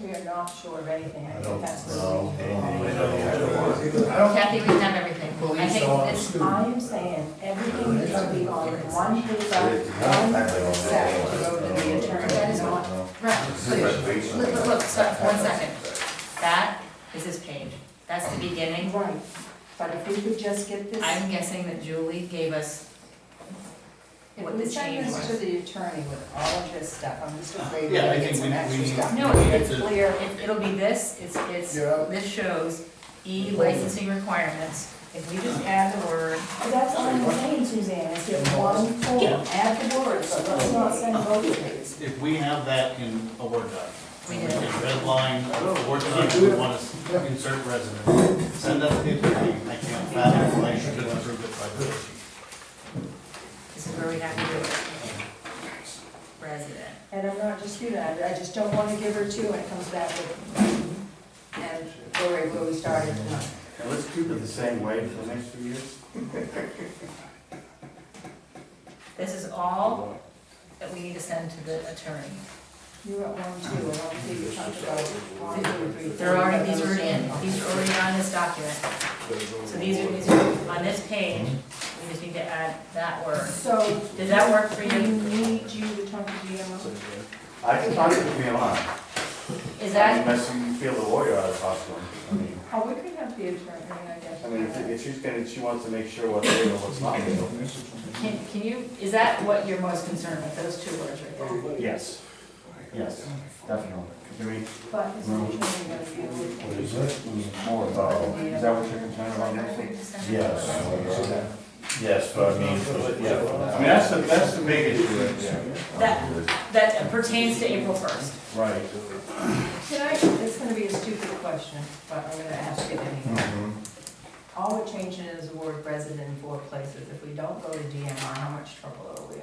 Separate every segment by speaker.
Speaker 1: We are not sure of anything, I
Speaker 2: I
Speaker 1: think
Speaker 2: don't
Speaker 1: that's.
Speaker 2: know anything.
Speaker 3: I don't,
Speaker 4: Kathy, we've done everything. I
Speaker 3: Police
Speaker 4: think
Speaker 3: officer.
Speaker 4: this-
Speaker 1: I am saying, everything needs to be on one paper, one set, to go to the attorney.
Speaker 4: That is not- Right, look, look, look, stop, one second. That is his page. That's the beginning.
Speaker 1: Right, but if we could just get this,
Speaker 4: I'm guessing that Julie gave us,
Speaker 1: if we send this to the attorney with all of this stuff, I'm just afraid we're
Speaker 3: Yeah, I
Speaker 1: gonna get
Speaker 3: think
Speaker 1: some
Speaker 3: we-
Speaker 1: extra
Speaker 3: we-
Speaker 1: stuff.
Speaker 4: no,
Speaker 3: we
Speaker 4: it's
Speaker 3: have to-
Speaker 4: clear, It- it'll be this, it's, it's,
Speaker 3: Yeah.
Speaker 4: this shows E licensing requirements. If we just add the word,
Speaker 1: But That's all I'm saying, Suzanne, is get one form, add the words, but let's not send both of these.
Speaker 5: If we have that in a Word document,
Speaker 4: we
Speaker 5: we
Speaker 4: did it.
Speaker 5: can red line, a Word document, we want to insert resident, send that to the attorney, I can't fathom why you should approve it by the.
Speaker 4: This is where we have to do it. Resident.
Speaker 1: And I'm not disputing, I, I just don't wanna give her two and it comes back with, and go right where we started tonight.
Speaker 6: And let's keep it the same way for the next few years.
Speaker 4: This is all that we need to send to the attorney.
Speaker 1: You were at one, two, and one, two, you talked about one, two, three.
Speaker 4: There are, already these are in,
Speaker 1: already
Speaker 4: these are already on this document. So these are, these are on this page, we just need to add that word.
Speaker 1: So.
Speaker 4: Does that work for
Speaker 1: We
Speaker 4: you?
Speaker 1: need you to talk to GMO.
Speaker 6: I can talk to PMI.
Speaker 4: Is that,
Speaker 6: Unless you feel the lawyer out of hospital. I mean,
Speaker 1: Oh, we could have the attorney, I guess.
Speaker 6: I mean, if if she's gonna, she wants to make sure what's legal, what's not legal.
Speaker 4: can, can you, is that what you're most concerned with, those two words right there?
Speaker 6: Yes. Yes, definitely. I mean,
Speaker 1: But is the attorney gonna be able
Speaker 6: what is it? More about, is that what you're concerned about next week? Yes. Yes, but I mean, yeah. I mean, that's the, that's the big issue right there.
Speaker 4: That, that pertains to April first.
Speaker 6: Right.
Speaker 1: to? Can I, it's gonna be a stupid question, but I'm gonna ask it anyway.
Speaker 6: Mm-hmm.
Speaker 1: All we're changing is the word resident in four places. If we don't go to DMR, how much trouble are we in?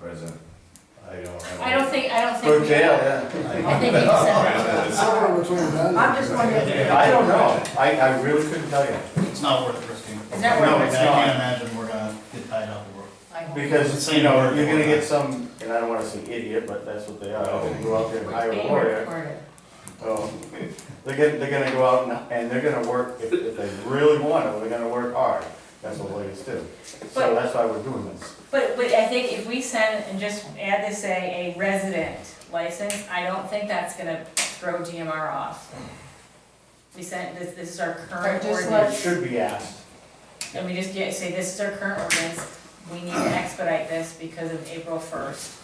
Speaker 6: Present. I don't have.
Speaker 4: I don't think, I don't think.
Speaker 6: Go to jail, yeah.
Speaker 4: I think you said,
Speaker 3: it's somewhere between that. and-
Speaker 1: I'm just wondering.
Speaker 6: I don't know. I, I really couldn't tell you.
Speaker 5: It's not worth it, Christine.
Speaker 4: Is that worth it?
Speaker 5: No, I can't imagine we're gonna get tied up in work.
Speaker 4: I hope.
Speaker 6: Because, you know, you're gonna get some, and I don't wanna say idiot, but that's what they are, they go out there and hire a
Speaker 4: Being
Speaker 6: lawyer.
Speaker 4: recorded.
Speaker 6: So, they're gonna, they're gonna go out and, and they're gonna work, if, if they really want it, they're gonna work hard. That's what lawyers do.
Speaker 4: But-
Speaker 6: So that's why we're doing this.
Speaker 4: But, but I think if we send and just add this, say, a resident license, I don't think that's gonna throw DMR off. We sent, this, this is our current
Speaker 1: Or just
Speaker 6: It
Speaker 4: ordinance,
Speaker 6: should be asked.
Speaker 4: and we just get, say, this is our current ordinance, we need to expedite this because of April first.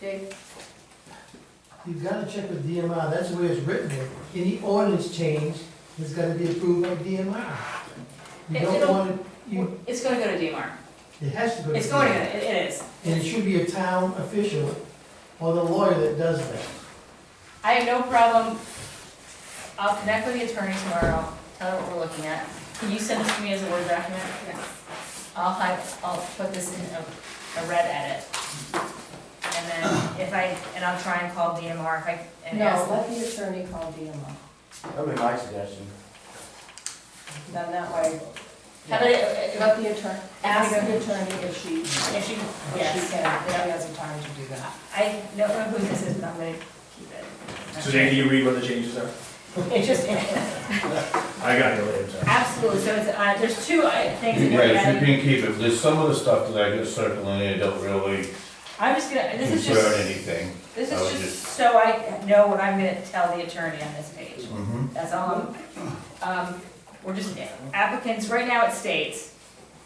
Speaker 1: Dave,
Speaker 7: You've gotta check with DMR, that's the way it's written there. Any ordinance change has gotta be approved by DMR. You
Speaker 4: It-
Speaker 7: don't
Speaker 4: it'll-
Speaker 7: want it, you,
Speaker 4: It's gonna go to DMR,
Speaker 7: it has to go to.
Speaker 4: it's going to,
Speaker 7: DMR.
Speaker 4: it it is.
Speaker 7: And it should be a town official or the lawyer that does that.
Speaker 4: I have no problem, I'll connect with the attorney tomorrow, tell her what we're looking at. Can you send this to me as a Word document? I'll have, I'll put this in a, a red edit. And then if I, and I'll try and call DMR if I, and
Speaker 1: no,
Speaker 4: ask them.
Speaker 1: let the attorney call DMR.
Speaker 6: That'd be my suggestion.
Speaker 1: Then that way,
Speaker 4: How about, it- uh,
Speaker 1: let the attorney, ask the attorney if she,
Speaker 4: uh, if
Speaker 1: if she
Speaker 4: she, yes,
Speaker 1: can, if she has the time to do that.
Speaker 4: I don't know who this is, but I'm gonna keep it.
Speaker 2: Suzanne, can you read what the changes are?
Speaker 4: It's just,
Speaker 2: I got it later, sorry.
Speaker 4: absolutely, so it's, uh, there's two uh, things that are
Speaker 2: Right, if you
Speaker 4: added.
Speaker 2: can keep it, there's some of the stuff that I just circled in, it don't really
Speaker 4: I'm just gonna, this is
Speaker 2: concern
Speaker 4: just,
Speaker 2: anything.
Speaker 4: this
Speaker 2: I would
Speaker 4: is just
Speaker 2: just-
Speaker 4: so I know what I'm gonna tell the attorney on this page.
Speaker 2: Mhm.
Speaker 4: That's all I'm, um, we're just, applicants, right now it states,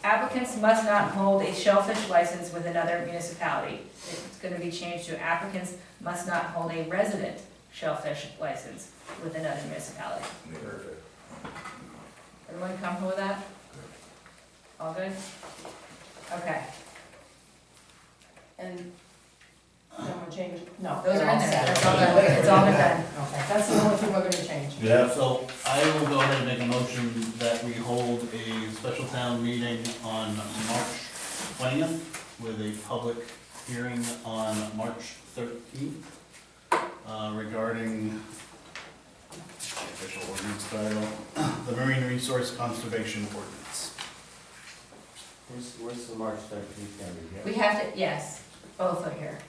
Speaker 4: applicants must not hold a shellfish license with another municipality. It's gonna be changed to applicants must not hold a resident shellfish license with another municipality. Everyone comfortable with that? All good? Okay,
Speaker 1: And then we'll change, no.
Speaker 4: those
Speaker 1: they're
Speaker 4: are in
Speaker 1: all
Speaker 4: there,
Speaker 1: set.
Speaker 4: that's all good, it's all been done.
Speaker 1: Okay, that's the only thing we're gonna change.
Speaker 2: Yeah,
Speaker 5: So I will go ahead and make a motion that we hold a special town meeting on March twentieth with a public hearing on March thirteenth uh, regarding official ordinance title, the Marine Resource Conservation Ordinance.
Speaker 6: Where's, where's the March thirteenth gonna be
Speaker 4: We
Speaker 6: here?
Speaker 4: have to, yes, both are here.